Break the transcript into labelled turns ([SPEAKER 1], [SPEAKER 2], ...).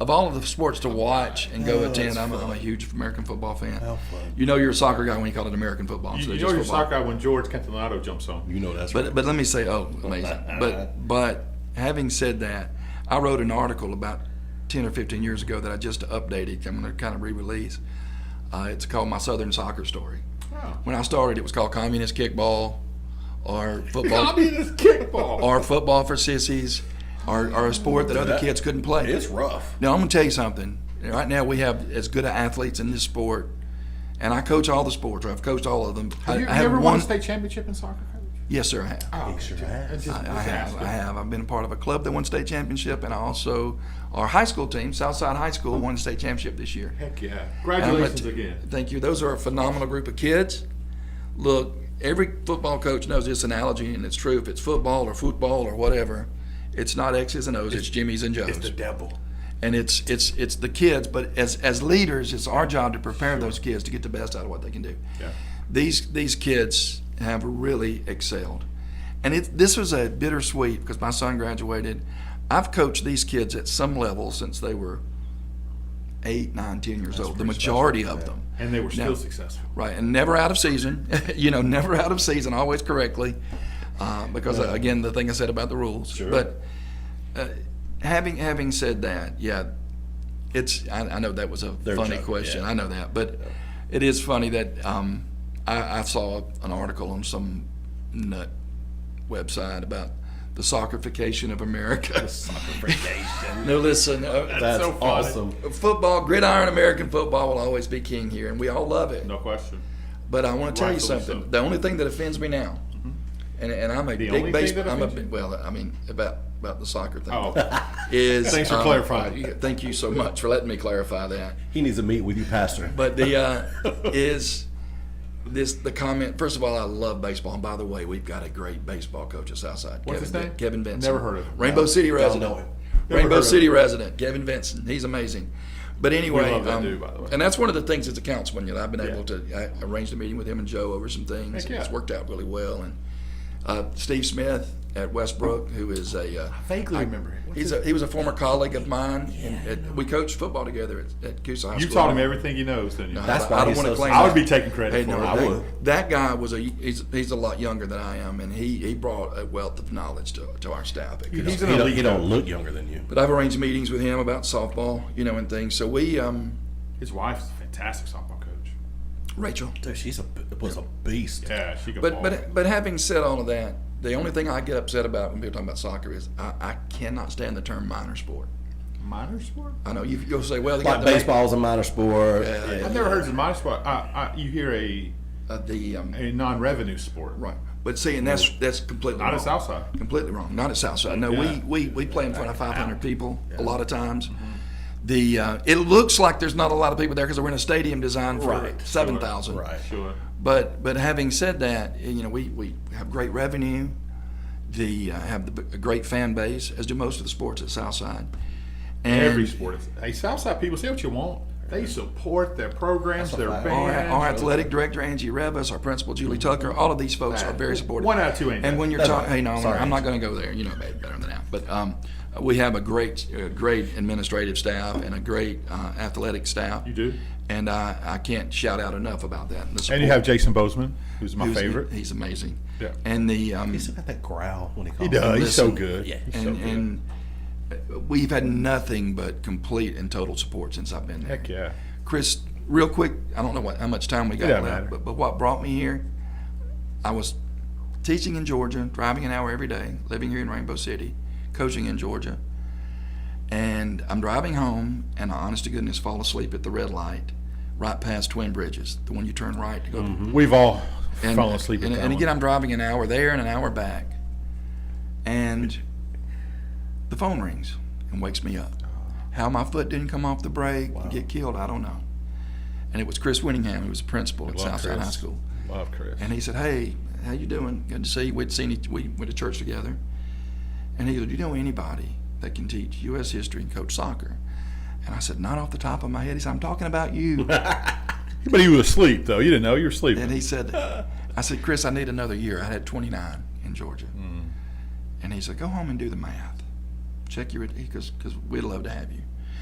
[SPEAKER 1] of all of the sports to watch and go
[SPEAKER 2] Oh,
[SPEAKER 1] attend,
[SPEAKER 2] that's
[SPEAKER 1] I'm,
[SPEAKER 2] fun.
[SPEAKER 1] I'm a huge American football fan.
[SPEAKER 2] How fun.
[SPEAKER 1] You know you're a soccer guy when you call it American football.
[SPEAKER 3] You,
[SPEAKER 1] instead
[SPEAKER 3] you
[SPEAKER 1] of
[SPEAKER 3] know
[SPEAKER 1] just
[SPEAKER 3] your
[SPEAKER 1] football.
[SPEAKER 3] sock guy when George Catanado jumps on.
[SPEAKER 2] You know that's
[SPEAKER 1] But but let me say, oh, amazing. but but having said that, I wrote an article about ten or fifteen years ago that I just updated. I'm going to kind of re-release. Uh, it's called My Southern Soccer Story.
[SPEAKER 3] Oh.
[SPEAKER 1] When I started, it was called Communist Kickball, or
[SPEAKER 3] I
[SPEAKER 1] football,
[SPEAKER 3] mean, it's kickball.
[SPEAKER 1] or football for sissies, or, or a sport that other kids couldn't play.
[SPEAKER 2] it's rough.
[SPEAKER 1] Now I'm gonna tell you something. Right now we have as good athletes in this sport, and I coach all the sports. I've coached all of them. I,
[SPEAKER 3] Have you,
[SPEAKER 1] I
[SPEAKER 3] you
[SPEAKER 1] have
[SPEAKER 3] ever
[SPEAKER 1] one.
[SPEAKER 3] won a state championship in soccer? coach?
[SPEAKER 1] yes, sir. I have.
[SPEAKER 3] Oh,
[SPEAKER 2] Kick your
[SPEAKER 3] just-
[SPEAKER 2] ass.
[SPEAKER 3] it's just-
[SPEAKER 1] I, I
[SPEAKER 3] just
[SPEAKER 1] have.
[SPEAKER 3] asking.
[SPEAKER 1] I have. I've been a part of a club that won state championship, and I also our high school team, Southside High School, won state championship this year.
[SPEAKER 3] Heck yeah!
[SPEAKER 1] And I'm gonna
[SPEAKER 3] Congratulations
[SPEAKER 1] t-
[SPEAKER 3] again.
[SPEAKER 1] Thank you. Those are a phenomenal group of kids. Look, every football coach knows this analogy, and it's true. If it's football or football or whatever, it's not X's and O's. It's, Jimmy's and Joe's
[SPEAKER 2] It's the devil.
[SPEAKER 1] and it's it's it's the kids but as as leaders it's our job to prepare those kids to get the best out of what they can do
[SPEAKER 3] Yeah.
[SPEAKER 1] these these kids have really excelled and it this was a bittersweet because my son graduated i've coached these kids at some level since they were eight nine ten years old the
[SPEAKER 2] pretty
[SPEAKER 1] majority
[SPEAKER 2] special,
[SPEAKER 1] of
[SPEAKER 2] yeah.
[SPEAKER 1] them
[SPEAKER 3] And they were still
[SPEAKER 1] Now-
[SPEAKER 3] successful.
[SPEAKER 1] right and never out of season you know never out of season always correctly uh, because uh, again the thing i said about the rules
[SPEAKER 2] Sure.
[SPEAKER 1] but uh, having having said that yeah it's i, I know that was a
[SPEAKER 2] Their
[SPEAKER 1] funny
[SPEAKER 2] job,
[SPEAKER 1] question
[SPEAKER 2] yeah.
[SPEAKER 1] i know that but it is funny that um, I, I saw an article on some nut website about the soccerification of america
[SPEAKER 2] That's,
[SPEAKER 1] no listen uh,
[SPEAKER 3] so funny.
[SPEAKER 2] awesome.
[SPEAKER 1] football gridiron american football will always be king here and we all love it
[SPEAKER 3] No question.
[SPEAKER 1] but I want to tell you
[SPEAKER 3] Rightfully
[SPEAKER 1] something.
[SPEAKER 3] so. Mm-hmm.
[SPEAKER 1] The only thing that offends me now, and, and I'm a
[SPEAKER 3] only
[SPEAKER 1] big
[SPEAKER 3] thing that
[SPEAKER 1] baseball. I'm a
[SPEAKER 3] offends you?
[SPEAKER 1] big, well, I mean about about the soccer thing.
[SPEAKER 3] Oh,
[SPEAKER 1] Is
[SPEAKER 3] Thanks for
[SPEAKER 1] um,
[SPEAKER 3] clarifying.
[SPEAKER 1] uh, Thank you so much for letting me clarify that.
[SPEAKER 2] He needs to meet with you, Pastor.
[SPEAKER 1] But the uh, is this the comment? First of all, I love baseball. And by the way, we've got a great baseball coach at Southside.
[SPEAKER 3] What's
[SPEAKER 1] Kevin,
[SPEAKER 3] his
[SPEAKER 1] Vin-
[SPEAKER 3] name?
[SPEAKER 1] Kevin Benson.
[SPEAKER 3] Never heard of him.
[SPEAKER 1] Rainbow City resident.
[SPEAKER 2] know him.
[SPEAKER 3] Never heard
[SPEAKER 1] Rainbow
[SPEAKER 3] of
[SPEAKER 1] City
[SPEAKER 3] him.
[SPEAKER 1] resident. Kevin Benson. He's amazing. But anyway,
[SPEAKER 3] love that
[SPEAKER 1] um,
[SPEAKER 3] dude, by the way.
[SPEAKER 1] and that's one of the things as a councilman. You know, I've been
[SPEAKER 3] Yeah.
[SPEAKER 1] able to I arranged a meeting with him and Joe over some things.
[SPEAKER 3] Heck
[SPEAKER 1] and It's
[SPEAKER 3] yeah.
[SPEAKER 1] worked out really well. And uh, Steve Smith at Westbrook, who is a uh,
[SPEAKER 3] vaguely remember him. What's
[SPEAKER 1] He's a, he was a former colleague of mine, and, and we coached football together at, at Coosa High
[SPEAKER 3] You
[SPEAKER 1] School.
[SPEAKER 3] taught him everything he knows, didn't you?
[SPEAKER 2] That's
[SPEAKER 1] I-
[SPEAKER 2] why
[SPEAKER 1] I don't
[SPEAKER 2] he's
[SPEAKER 1] wanna
[SPEAKER 2] so
[SPEAKER 1] claim
[SPEAKER 2] smart.
[SPEAKER 3] I would be taking credit
[SPEAKER 1] Hey,
[SPEAKER 3] for
[SPEAKER 1] no,
[SPEAKER 3] it.
[SPEAKER 2] I
[SPEAKER 1] that,
[SPEAKER 2] would.
[SPEAKER 1] that guy was a he's, he's a lot younger than I am, and he, he brought a wealth of knowledge to, to our staff. at Coosa.
[SPEAKER 3] He's
[SPEAKER 2] He
[SPEAKER 3] an
[SPEAKER 2] don't,
[SPEAKER 3] elite
[SPEAKER 2] he don't
[SPEAKER 3] coach.
[SPEAKER 2] look younger than you.
[SPEAKER 1] But I've arranged meetings with him about softball, you know, and things. So we, um,
[SPEAKER 3] His wife's a fantastic softball coach.
[SPEAKER 1] Rachel.
[SPEAKER 2] Dude, she's a was a beast.
[SPEAKER 3] Yeah, she could.
[SPEAKER 1] But
[SPEAKER 3] ball.
[SPEAKER 1] but but having said all of that, the only thing I get upset about when people talk about soccer is I, I cannot stand the term minor sport.
[SPEAKER 3] minor sport.
[SPEAKER 1] I know you, you'll say, well, they
[SPEAKER 2] Like
[SPEAKER 1] got the-
[SPEAKER 2] baseball is a minor sport.
[SPEAKER 1] Yeah.
[SPEAKER 3] I've never heard of minor sport. I, I, you hear a
[SPEAKER 1] uh, the um,
[SPEAKER 3] a non-revenue sport,
[SPEAKER 1] right. But see, and that's that's completely
[SPEAKER 3] Not
[SPEAKER 1] wrong.
[SPEAKER 3] at Southside.
[SPEAKER 1] completely wrong. Not at Southside. No,
[SPEAKER 3] Yeah.
[SPEAKER 1] we, we, we play in front of 500 people a lot of times. The uh, it looks like there's not a lot of people there because we're in a stadium designed for
[SPEAKER 2] Right.
[SPEAKER 1] seven thousand.
[SPEAKER 2] Right.
[SPEAKER 3] Sure.
[SPEAKER 1] But but having said that, you know we, we have great revenue, the uh, have the, a great fan base as do most of the sports at Southside. And
[SPEAKER 3] Every sport. Is, hey, Southside people, say what you want. They support their programs, their
[SPEAKER 2] fact.
[SPEAKER 3] bands.
[SPEAKER 1] Our, our athletic director Angie Revis, our principal Julie Tucker, all of these folks are very supportive.
[SPEAKER 3] One out of two
[SPEAKER 1] And
[SPEAKER 3] ain't bad.
[SPEAKER 1] when you're
[SPEAKER 2] That's
[SPEAKER 1] talking,
[SPEAKER 2] right.
[SPEAKER 1] hey, no, I'm-
[SPEAKER 2] Sorry,
[SPEAKER 1] I'm not going to go there. You know better better than that. But um, we have a great, uh, great administrative staff and a great uh, athletic staff.
[SPEAKER 3] You do.
[SPEAKER 1] And I, I can't shout out enough about that. The
[SPEAKER 3] And you
[SPEAKER 1] support-
[SPEAKER 3] have Jason Bozeman, who's my
[SPEAKER 1] who's-
[SPEAKER 3] favorite.
[SPEAKER 1] He's amazing.
[SPEAKER 3] Yeah.
[SPEAKER 1] And the um,
[SPEAKER 2] He's got that growl when he calls.
[SPEAKER 3] He does. He's so
[SPEAKER 1] Listen,
[SPEAKER 3] good.
[SPEAKER 2] yeah.
[SPEAKER 3] He's so
[SPEAKER 1] and,
[SPEAKER 3] good.
[SPEAKER 1] and uh, we've had nothing but complete and total support since I've been there.
[SPEAKER 3] Heck yeah.
[SPEAKER 1] Chris, real quick, I don't know what, how much time we got
[SPEAKER 3] doesn't matter.
[SPEAKER 1] left, but, but what brought me here, I was teaching in Georgia, driving an hour every day, living here in Rainbow City, coaching in Georgia. And I'm driving home, and I honest to goodness fall asleep at the red light right past Twin Bridges, the one you turn right to go to
[SPEAKER 3] We've all
[SPEAKER 1] and,
[SPEAKER 3] fallen asleep
[SPEAKER 1] and,
[SPEAKER 3] at that
[SPEAKER 1] and
[SPEAKER 3] one.
[SPEAKER 1] again, I'm driving an hour there and an hour back, and the phone rings and wakes me up. How my foot didn't come off the brake and get killed, I don't know. And it was Chris Winningham, who was principal at
[SPEAKER 3] Love
[SPEAKER 1] Southside
[SPEAKER 3] Chris.
[SPEAKER 1] High School,
[SPEAKER 3] Love Chris.
[SPEAKER 1] and he said, "Hey, how you doing? Good to see you. We'd seen each, we went to church together." And he said, "Do you know anybody that can teach U.S. history and coach soccer?" And I said, "Not off the top of my head." He said, "I'm talking about you."
[SPEAKER 3] But he was asleep though. You didn't know you were sleeping.
[SPEAKER 1] And he said, I said, Chris, I need another year. I had 29 in Georgia. And he said, go home and do the math. Check your, because, because we'd love to have you.